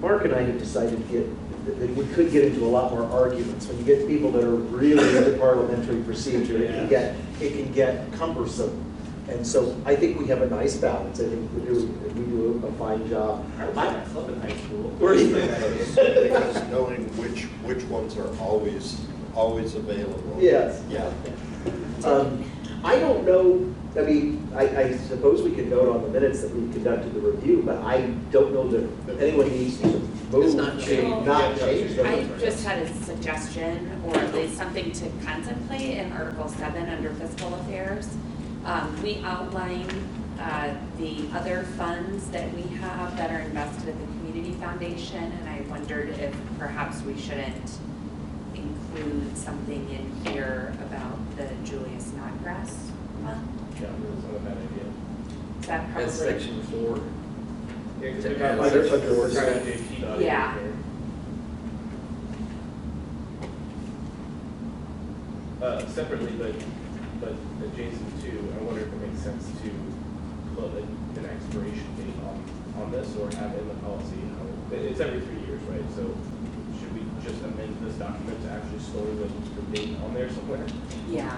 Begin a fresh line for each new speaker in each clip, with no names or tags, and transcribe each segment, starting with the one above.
Mark and I have decided to get, that- that we could get into a lot more arguments. When you get people that are really into parliamentary procedure, it can
Yeah.
get, it can get cumbersome. And so I think we have a nice balance. I think we do, we do a fine job.
I was at a club in high school.
Because knowing which, which ones are always, always available.
Yes.
Yeah.
Um, I don't know, I mean, I, I suppose we could note on the minutes that we conducted the review, but I don't know that anyone needs to move.
It's not changed.
Not change them.
I just had a suggestion, or at least something to contemplate in Article seven under fiscal affairs. Um, we outline, uh, the other funds that we have that are invested at the community foundation, and I wondered if perhaps we shouldn't include something in here about the Julius Snodgrass Fund. Is that probably?
That's section four.
Yeah, because
To
we've
add
got
search
others,
under
we're
search.
trying to keep the other
Yeah.
in there. Uh, separately, but, but adjacent to, I wonder if it makes sense to put a- an expiration date on, on this or have it in the policy. how- it- It's every three years, right? So should we just amend this document to actually store the, the date on there somewhere?
Yeah,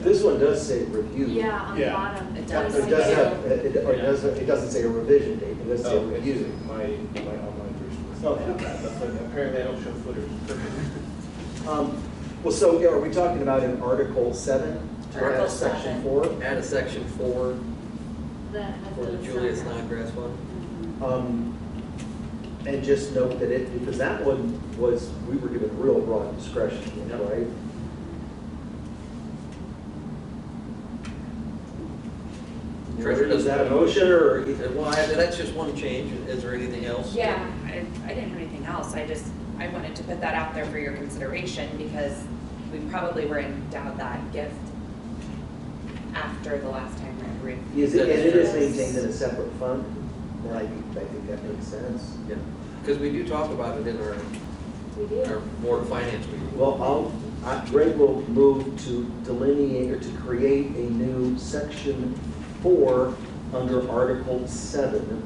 This one does say review.
Yeah, on the
Yeah.
bottom.
It
It
does.
It's like
does
a-
have, it, it- or it does, it doesn't say a revision date, it does say
Oh, it's
review.
my, my online version.
Oh.
That's like- Apparently I don't show footers.
Um, Well, so yeah, are we talking about in Article seven? to add
Article
Section
seven.
four?
Add a section four
That has
for the
those
Julius
signs.
Snodgrass one.
Um, And just note that it, because that one was, we were given real broad discretion, right?
Treasurer
Is
doesn't-
that a motion or?
Uh, Well, I- that's just one change. Is there anything else?
Yeah, I, I didn't have anything else, I just, I wanted to put that out there for your consideration, because we probably were endowed that gift after the last time we had
Is it, and it is maintained in a separate fund? Then I think, I think that makes sense.
Yeah, because we do talk about it in our,
We
our
do.
board of finance meeting.
Well, I'll, I- Greg will move to delineate or to create a new section four under Article seven,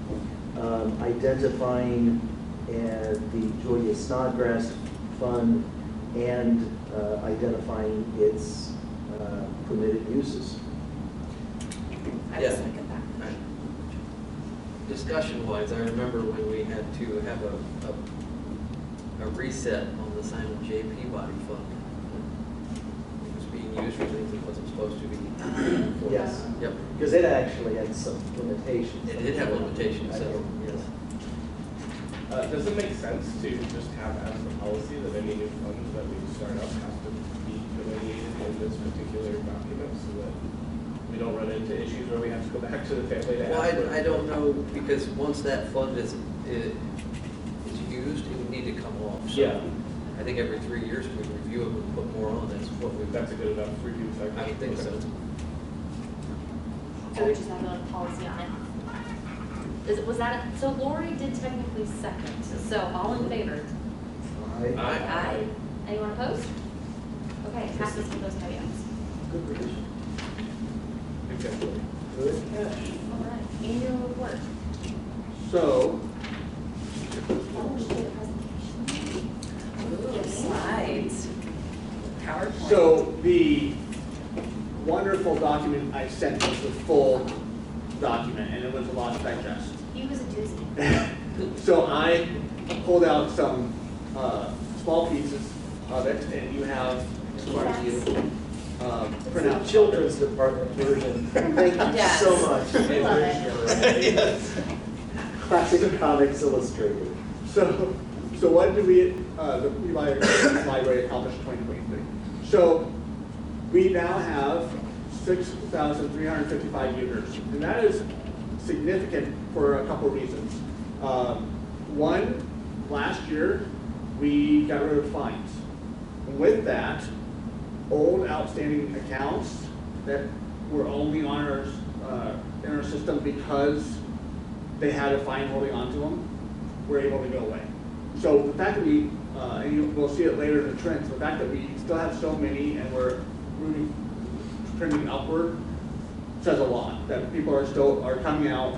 um, identifying uh, the Julia Snodgrass Fund and uh, identifying its uh, permitted uses.
I
Yeah.
was like at that.
Discussion wise, I remember when we had to have a, a, a reset on the Simon J. Peabody fund. It was being used for things it wasn't supposed to be.
Yes,
Yep,
because it actually had some limitations.
it did have limitations, so, yes.
Uh, does it make sense to just have as the policy that any new funds that we start up have to be delineated in this particular document so that we don't run into issues where we have to go back to the family to ask?
Well,
for-
I, I don't know, because once that fund is, is is used, it would need to come off. So
Yeah.
I think every three years we review it and put more on, that's what we've got.
That's a good enough review cycle.
I think so.
So we just have a policy on it. Is, was that, so Lori did technically second, so all in favor?
Aye.
Aye. Anyone opposed? Okay, passes with those caveats.
Good revision.
Exactly.
Good catch.
All right, annual report.
So,
Oh, she did a presentation.
Ooh, Slides, PowerPoint.
So the wonderful document I sent was the full document, and it was a lot to digest.
He was a doozy.
So I pulled out some, uh, small pieces of it, and you have, as far as you, uh, print
Now,
out.
children's department version. Thank you
Yes.
so much.
We love it.
Classic Comics Illustrated.
So, so what did we, uh, the Levi Library accomplish in twenty twenty-three? So, we now have six thousand three hundred fifty-five users, and that is significant for a couple reasons. Um, one, last year, we got rid of fines. And With that, old outstanding accounts that were only on our, uh, in our system because they had a fine holding onto them, were able to go away. So the fact that we, uh, and you, we'll see it later in the trends, the fact that we still have so many and we're moving, trending upward says a lot, that people are still, are coming out